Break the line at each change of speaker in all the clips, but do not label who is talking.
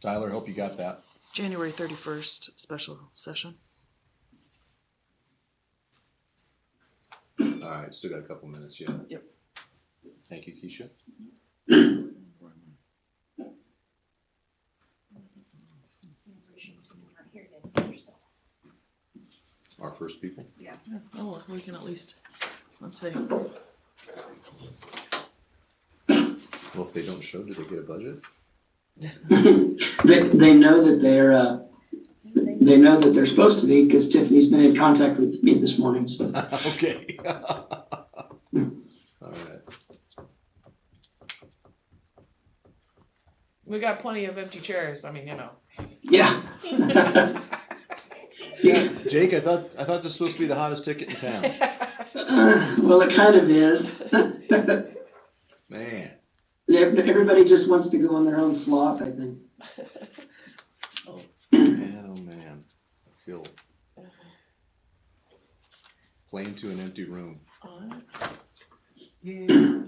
Tyler, hope you got that.
January thirty-first, special session.
All right, still got a couple minutes, yeah.
Yep.
Thank you, Keisha. Our first people.
Yeah, Oh, well, we can at least, let's say,
Well, if they don't show, do they get a budget?
They, they know that they're, uh, they know that they're supposed to be because Tiffany's been in contact with me this morning, so.
Okay. All right.
We got plenty of empty chairs. I mean, you know.
Yeah. Yeah,
Jake, I thought, I thought this was supposed to be the hottest ticket in town.
Uh, well, it kind of is.
Man.
Everybody just wants to go on their own slot, I think.
Man, oh man, I feel plane to an empty room.
alright,
Yeah.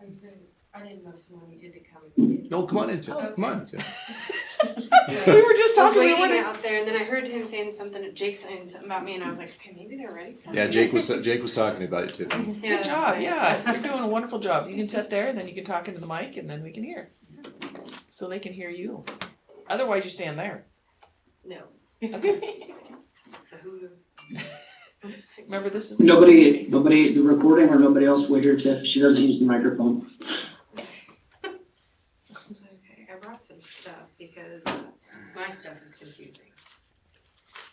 I didn't- I didn't know someone needed to come. We
No, come on in, Tim. Come on, Tim.
we were just
was
talking. We
waiting
were
out there, and then I heard him saying something, Jake saying something about me, and I was like, okay, maybe they're ready. for
Yeah,
me."
Jake was Jake was talking about it, Tiffany.
Yeah,
Good
that's
job.
right.
Yeah, you're doing a wonderful job. You can sit there, and then you can talk into the mic, and then we can hear. So they can hear you. Otherwise, you stand there.
No,
Okay.
so who?
Remember, this is
Nobody, nobody, the recording or nobody else will hear Tiff. She doesn't use the microphone.
Okay, I brought some stuff because my stuff is confusing,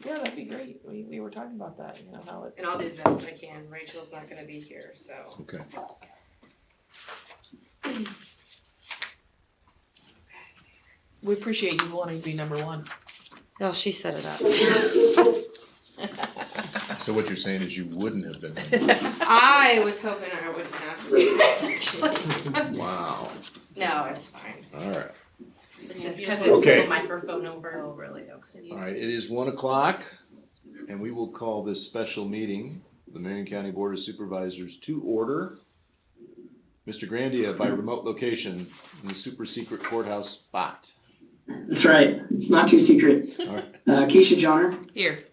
Yeah, that'd be great. We, we were talking about that. You know how it's.
and I'll do the best I can. Rachel's not gonna be here, so.
Okay.
We appreciate you wanting to be number one.
No, she set it up.
So what you're saying is you wouldn't have been.
I was hoping I wouldn't have to.
Wow.
No, it's fine.
All right.
It's Just because it's
Okay.
the microphone over. Oh, really?
All right. It is one o'clock, and we will call this special meeting, the Marion County Board of Supervisors, to order. Mr. Grandia by remote location in the super secret courthouse spot.
That's right. It's not too secret.
All right.
Uh, Keisha Johnner,
Here.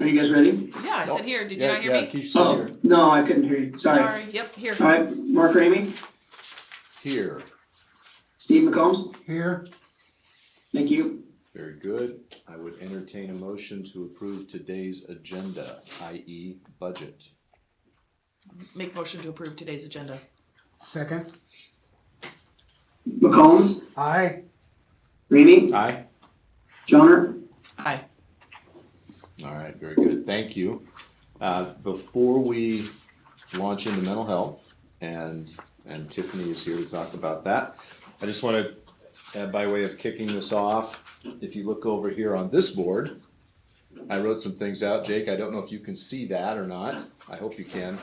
are you guys ready?
Yeah, I said here. Did
Oh,
you
Yeah,
not hear
yeah,
me?
Keisha said
Oh, no, I couldn't hear you. Sorry.
Sorry. Yep. Here.
All right, Mark Ramey,
here. Here.
Steve McCombs,
Here.
thank you.
Very good. I would entertain a motion to approve today's agenda, i.e. budget.
Make motion to approve today's agenda.
Second,
McCombs,
aye.
Ramey,
Aye.
Johnner,
Aye.
All right, very good. Thank you. Uh, Before we launch into mental health, and, and Tiffany is here to talk about that, I just want to, by way of kicking this off, if you look over here on this board, I wrote some things out. Jake, I don't know if you can see that or not. I hope you can.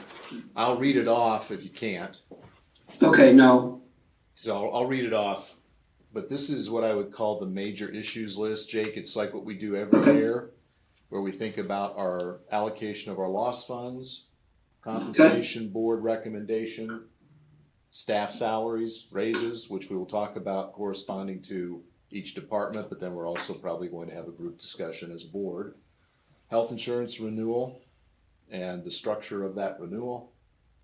I'll read it off if you can't.
Okay, no.
So I'll, I'll read it off. But this is what I would call the major issues list, Jake. It's like what we do every
Okay.
year, where we think about our allocation of our loss funds, compensation board recommendation, staff salaries, raises, which we will talk about corresponding to each department, but then we're also probably going to have a group discussion as a board. Health insurance renewal and the structure of that renewal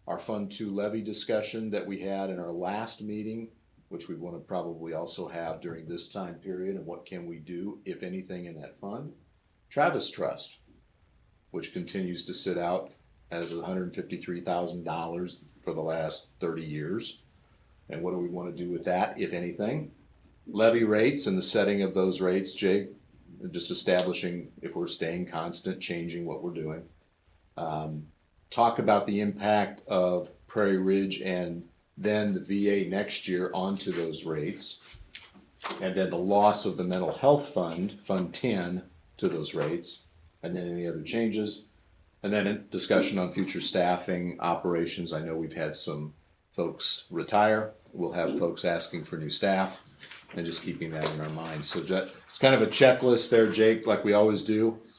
our Fund Two levy discussion that we had in our last meeting, which we want to probably also have during this time period, and what can we do, if anything, in that fund? Travis Trust, which continues to sit out as hundred and fifty-three thousand dollars for the last thirty years. And what do we want to do with that, if anything? Levy rates and the setting of those rates, Jake, just establishing if we're staying constant, changing what we're doing. Um, talk about the impact of Prairie Ridge and then the VA next year onto those rates. And then the loss of the mental health fund, Fund Ten, to those rates, and then any other changes. And then a discussion on future staffing, operations. I know we've had some folks retire. We'll have folks asking for new staff and just keeping that in our minds. So that, it's kind of a checklist there, Jake, like we always do.